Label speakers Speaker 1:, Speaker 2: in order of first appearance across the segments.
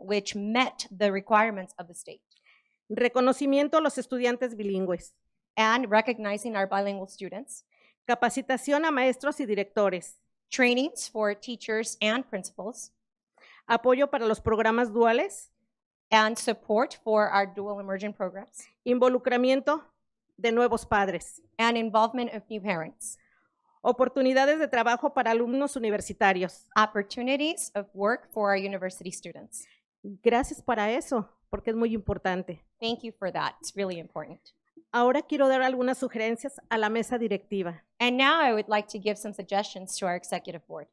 Speaker 1: which met the requirements of the state
Speaker 2: Reconocimiento a los estudiantes bilingües.
Speaker 1: and recognizing our bilingual students,
Speaker 2: Capacitación a maestros y directores.
Speaker 1: trainings for teachers and principals,
Speaker 2: Apoyo para los programas duales.
Speaker 1: and support for our dual immersion programs
Speaker 2: Involucramiento de nuevos padres.
Speaker 1: and involvement of new parents,
Speaker 2: Oportunidades de trabajo para alumnos universitarios.
Speaker 1: opportunities of work for our university students.
Speaker 2: Gracias para eso, porque es muy importante.
Speaker 1: Thank you for that. It's really important.
Speaker 2: Ahora quiero dar algunas sugerencias a la mesa directiva.
Speaker 1: And now I would like to give some suggestions to our executive board.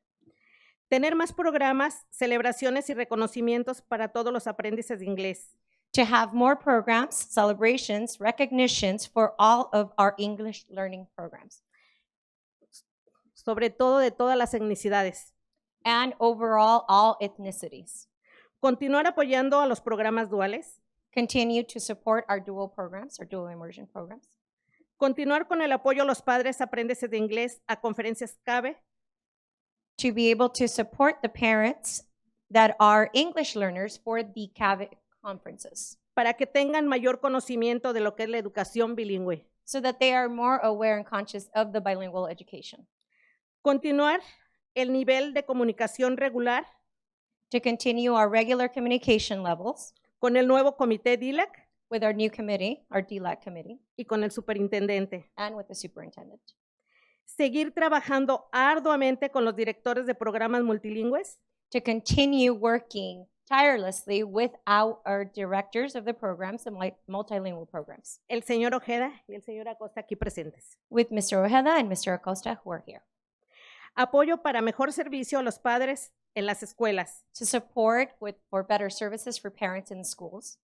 Speaker 2: Tener más programas, celebraciones y reconocimientos para todos los aprendices de inglés.
Speaker 1: To have more programs, celebrations, recognitions for all of our English learning programs
Speaker 2: sobre todo de todas las etnicidades.
Speaker 1: and overall all ethnicities.
Speaker 2: Continuar apoyando a los programas duales.
Speaker 1: Continue to support our dual programs, our dual immersion programs.
Speaker 2: Continuar con el apoyo a los padres aprendices de inglés a conferencias CABE
Speaker 1: to be able to support the parents that are English learners for the CAVIC conferences
Speaker 2: para que tengan mayor conocimiento de lo que es la educación bilingüe.
Speaker 1: so that they are more aware and conscious of the bilingual education.
Speaker 2: Continuar el nivel de comunicación regular
Speaker 1: To continue our regular communication levels
Speaker 2: con el nuevo comité DILAC
Speaker 1: with our new committee, our DLAC committee,
Speaker 2: y con el superintendente.
Speaker 1: and with the superintendent.
Speaker 2: Seguir trabajando arduamente con los directores de programas multilingües
Speaker 1: To continue working tirelessly with our, our directors of the programs and like multilingual programs,
Speaker 2: el señor Ojeda y el señor Acosta aquí presentes.
Speaker 1: with Mr. Ojeda and Mr. Acosta who are here.
Speaker 2: Apoyo para mejor servicio a los padres en las escuelas.
Speaker 1: To support with for better services for parents in schools.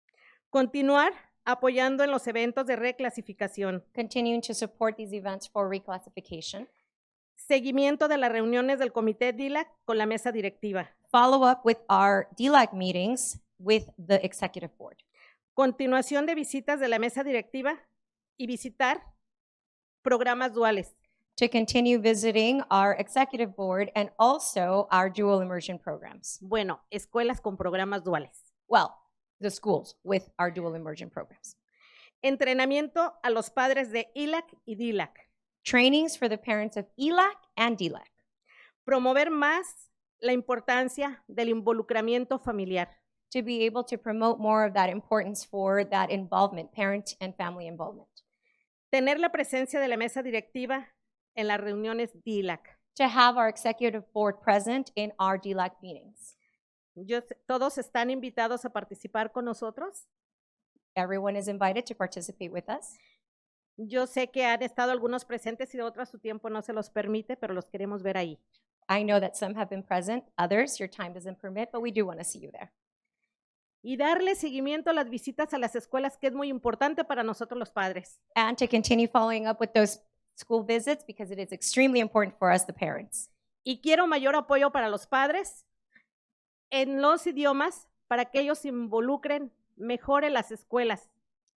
Speaker 2: Continuar apoyando en los eventos de reclasificación.
Speaker 1: continuing to support these events for reclassification.
Speaker 2: Seguimiento de las reuniones del comité DILAC con la mesa directiva.
Speaker 1: Follow up with our DLAG meetings with the executive board.
Speaker 2: Continuación de visitas de la mesa directiva y visitar programas duales.
Speaker 1: To continue visiting our executive board and also our dual immersion programs.
Speaker 2: Bueno, escuelas con programas duales.
Speaker 1: Well, the schools with our dual immersion programs.
Speaker 2: Entrenamiento a los padres de ILAC y DILAC.
Speaker 1: Trainings for the parents of E ELAC and DLAC.
Speaker 2: Promover más la importancia del involucramiento familiar.
Speaker 1: To be able to promote more of that importance for that involvement, parent and family involvement.
Speaker 2: Tener la presencia de la mesa directiva en las reuniones DILAC.
Speaker 1: To have our executive board present in our DLAC meetings.
Speaker 2: Yo- todos están invitados a participar con nosotros.
Speaker 1: Everyone is invited to participate with us.
Speaker 2: Yo sé que han estado algunos presentes y otros su tiempo no se los permite, pero los queremos ver ahí.
Speaker 1: I know that some have been present, others, your time doesn't permit, but we do want to see you there.
Speaker 2: Y darle seguimiento a las visitas a las escuelas, que es muy importante para nosotros los padres.
Speaker 1: And to continue following up with those school visits because it is extremely important for us, the parents.
Speaker 2: Y quiero mayor apoyo para los padres en los idiomas para que ellos se involucren mejor en las escuelas.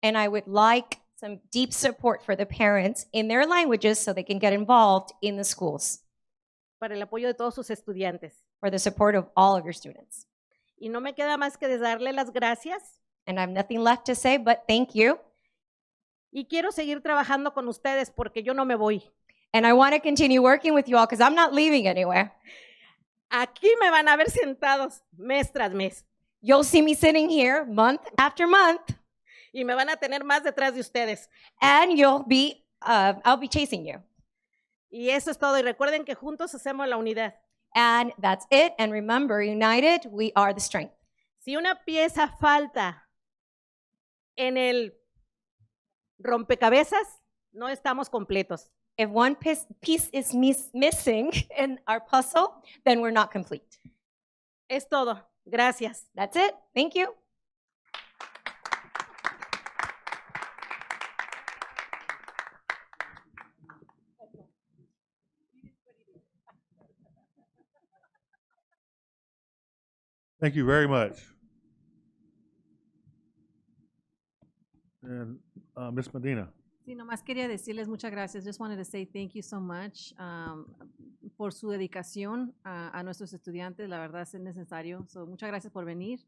Speaker 1: And I would like some deep support for the parents in their languages so they can get involved in the schools
Speaker 2: para el apoyo de todos sus estudiantes.
Speaker 1: for the support of all of your students.
Speaker 2: Y no me queda más que darle las gracias
Speaker 1: And I have nothing left to say but thank you.
Speaker 2: y quiero seguir trabajando con ustedes porque yo no me voy.
Speaker 1: And I want to continue working with you all because I'm not leaving anywhere.
Speaker 2: Aquí me van a ver sentados mes tras mes
Speaker 1: You'll see me sitting here month after month,
Speaker 2: y me van a tener más detrás de ustedes.
Speaker 1: and you'll be, uh, I'll be chasing you.
Speaker 2: Y eso es todo. Y recuerden que juntos hacemos la unidad.
Speaker 1: And that's it. And remember, united, we are the strength.
Speaker 2: Si una pieza falta en el rompecabezas, no estamos completos.
Speaker 1: If one piece, piece is mis- missing in our puzzle, then we're not complete.
Speaker 2: Es todo. Gracias.
Speaker 1: That's it. Thank you.
Speaker 3: Thank you very much. And uh, Ms. Medina,
Speaker 4: Sí, nomás quería decirles muchas gracias. Just wanted to say thank you so much um, por su dedicación a, a nuestros estudiantes. La verdad es necesario. So, muchas gracias por venir.